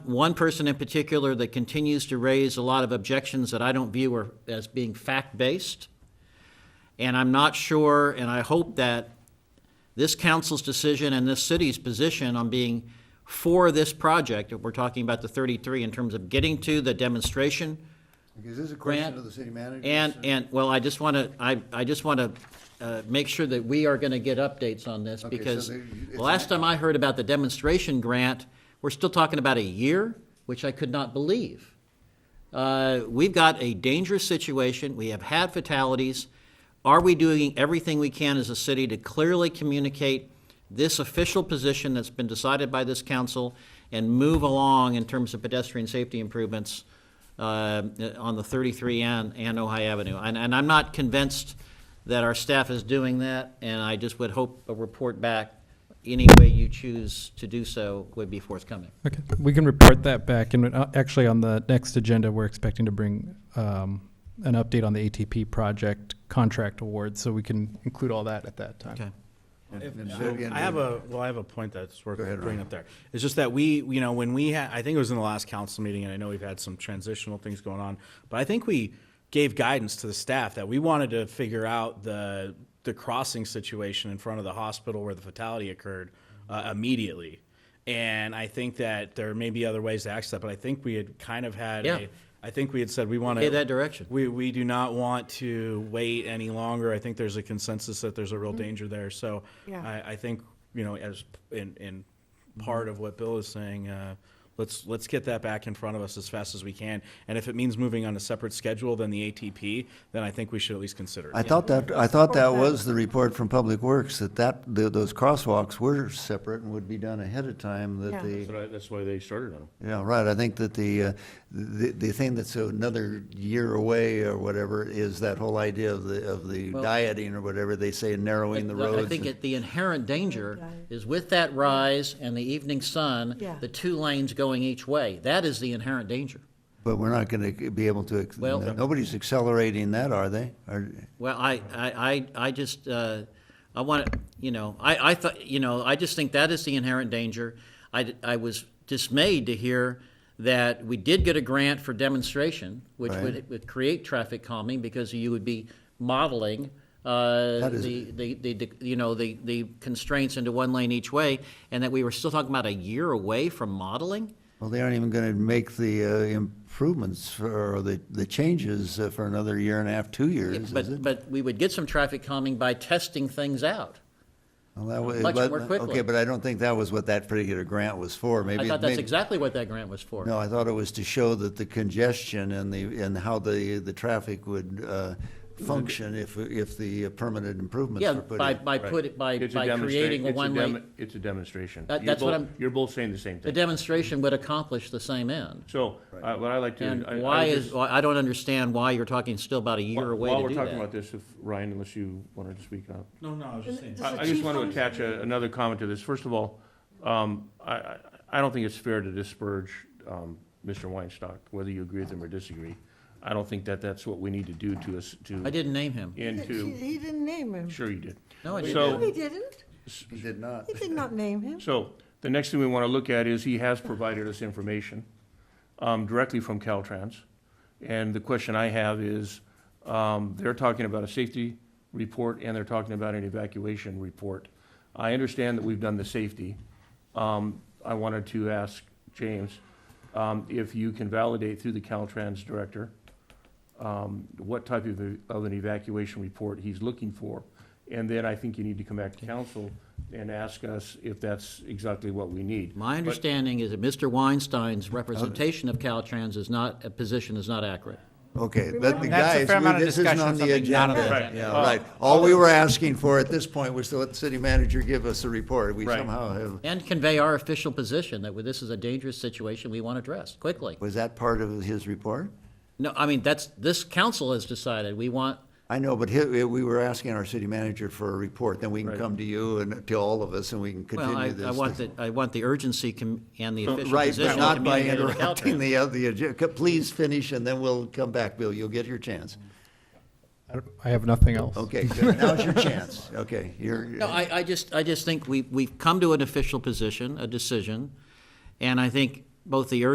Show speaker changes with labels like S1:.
S1: one person in particular that continues to raise a lot of objections that I don't view are, as being fact-based. And I'm not sure, and I hope that this council's decision and this city's position on being for this project, if we're talking about the 33 in terms of getting to the demonstration,
S2: Is this a
S1: Grant,
S2: question of the city manager?
S1: and,
S2: sir?
S1: and, well, I just want to, I, I just want to make sure that we are going to get updates on this,
S2: Okay, so
S1: because
S2: they- it's
S1: the last time I heard about the demonstration grant, we're still talking about a year, which I could not believe. Uh, We've got a dangerous situation, we have had fatalities. Are we doing everything we can as a city to clearly communicate this official position that's been decided by this council and move along in terms of pedestrian safety improvements uh, on the 33 and, and Ojai Avenue? And, and I'm not convinced that our staff is doing that, and I just would hope a report back, any way you choose to do so, would be forthcoming.
S3: Okay, we can report that back, and uh, actually, on the next agenda, we're expecting to bring um, an update on the ATP project contract award, so we can include all that at that time.
S1: Okay?
S2: And-
S4: If-
S2: and
S4: I-
S2: Vivian,
S4: I have a, well, I have a point that's worth
S2: Go ahead,
S4: bringing
S2: Ryan.
S4: up there. It's just that we, you know, when we had, I think it was in the last council meeting, and I know we've had some transitional things going on, but I think we gave guidance to the staff that we wanted to figure out the, the crossing situation in front of the hospital where the fatality occurred uh, immediately. And I think that there may be other ways to access that, but I think we had kind of had,
S1: Yeah.
S4: a- I think we had said we want to.
S1: Okay, that direction.
S4: We, we do not want to wait any longer. I think there's a consensus that there's a real danger there. So
S5: Yeah.
S4: I, I think, you know, as, in, in part of what Bill is saying, uh, let's, let's get that back in front of us as fast as we can. And if it means moving on a separate schedule than the ATP, then I think we should at least consider
S2: I
S4: it.
S2: thought that, I thought that was the report from Public Works, that that, th- those crosswalks were separate and would be done ahead of time, that
S5: Yeah.
S2: the,
S6: But I- That's why they started on them.
S2: yeah, right, I think that the, uh, the, the thing that's another year away or whatever is that whole idea of the, of the dieting or whatever they say, narrowing the
S1: Look,
S2: roads.
S1: I think it- the inherent danger is with that rise and the evening sun,
S5: Yeah.
S1: the two lanes going each way. That is the inherent danger.
S2: But we're not gonna be able to, ex-
S1: Well-
S2: nobody's accelerating that, are they? Are-
S1: Well, I, I, I, I just, uh, I want to, you know, I, I thought, you know, I just think that is the inherent danger. I, d- I was dismayed to hear that we did get a grant for demonstration, which
S2: Right.
S1: would, would create traffic calming because you would be modeling, uh,
S2: That is-
S1: the, the, the, the- you know, the, the constraints into one lane each way, and that we were still talking about a year away from modeling?
S2: Well, they aren't even gonna make the uh, improvements for, or the, the changes uh, for another year and a half, two years, is
S1: But,
S2: it?
S1: but we would get some traffic calming by testing things out.
S2: Well, that was-
S1: much
S2: but- uh,
S1: more quickly.
S2: Okay, but I don't think that was what that particular grant was for, maybe.
S1: I
S2: it
S1: thought that's
S2: made-
S1: exactly what that grant was for.
S2: No, I thought it was to show that the congestion and the, and how the, the traffic would, uh, function if, if the uh, permanent improvements
S1: Yeah,
S2: were put in.
S1: by, by put, by,
S6: It's a
S1: by
S6: demonstra-
S1: creating a
S6: it's
S1: one-way,
S6: dem- It's a demonstration.
S1: That-
S6: You're
S1: that's what
S6: both-
S1: I'm-
S6: You're both saying the same
S1: the
S6: thing.
S1: demonstration would accomplish the same end.
S6: So, uh, what I like to.
S1: And
S6: I- I would
S1: why is,
S6: just-
S1: why- I don't understand why you're talking still about a year away
S6: While
S1: to
S6: we're
S1: do
S6: talking about
S1: that.
S6: this, if, Ryan, unless you wanted to speak up.
S4: No, no, I was just saying.
S5: Does
S6: I
S5: the
S6: I just
S5: chief
S6: want to
S5: own-
S6: attach a- another comment to this. First of all, um, I, I- I don't think it's fair to disparage um, Mr. Weinstock, whether you agree with him or disagree. I don't think that that's what we need to do to us, to.
S1: I didn't name him.
S6: And
S5: He
S6: to,
S5: he didn't name him.
S6: sure you did.
S1: No, I
S6: So-
S5: No,
S1: didn't.
S5: he didn't.
S2: He did not.
S5: He did not name him.
S6: So the next thing we want to look at is he has provided us information um, directly from Caltrans. And the question I have is, um, they're talking about a safety report and they're talking about an evacuation report. I understand that we've done the safety. Um, I wanted to ask James um, if you can validate through the Caltrans director um, what type of, a- of an evacuation report he's looking for. And then I think you need to come back to council and ask us if that's exactly what we need.
S1: My understanding is that Mr. Weinstein's representation of Caltrans is not, a position is not accurate.
S2: Okay, but the
S7: That's a
S2: guys,
S7: fair
S2: we-
S7: amount of
S2: this isn't
S7: discussion
S2: on
S7: of
S2: the
S7: something not on the
S2: agenda.
S6: agenda.
S2: Yeah,
S6: Right.
S2: right. All we were asking for at this point was to let the city manager give us a report. We
S6: Right.
S2: somehow have,
S1: And convey our official position that this is a dangerous situation we want addressed quickly.
S2: was that part of his report?
S1: No, I mean, that's, this council has decided, we want,
S2: I know, but he- we were asking our city manager for a report, then we can come to you and to all of us and we can
S1: well, I,
S2: continue this.
S1: I want the, I want the urgency com- and
S6: Uh,
S1: the official
S2: Right,
S1: position
S2: but not by
S1: communicated to
S2: interrupting
S1: Caltrans.
S2: the, oth- the, agenda. please finish and then we'll come back, Bill, you'll get your chance.
S3: I don't- I have nothing else.
S2: Okay, good, now's your chance, okay, you're.
S1: No, I, I just, I just think we, we've come to an official position, a decision, and I think both the urgency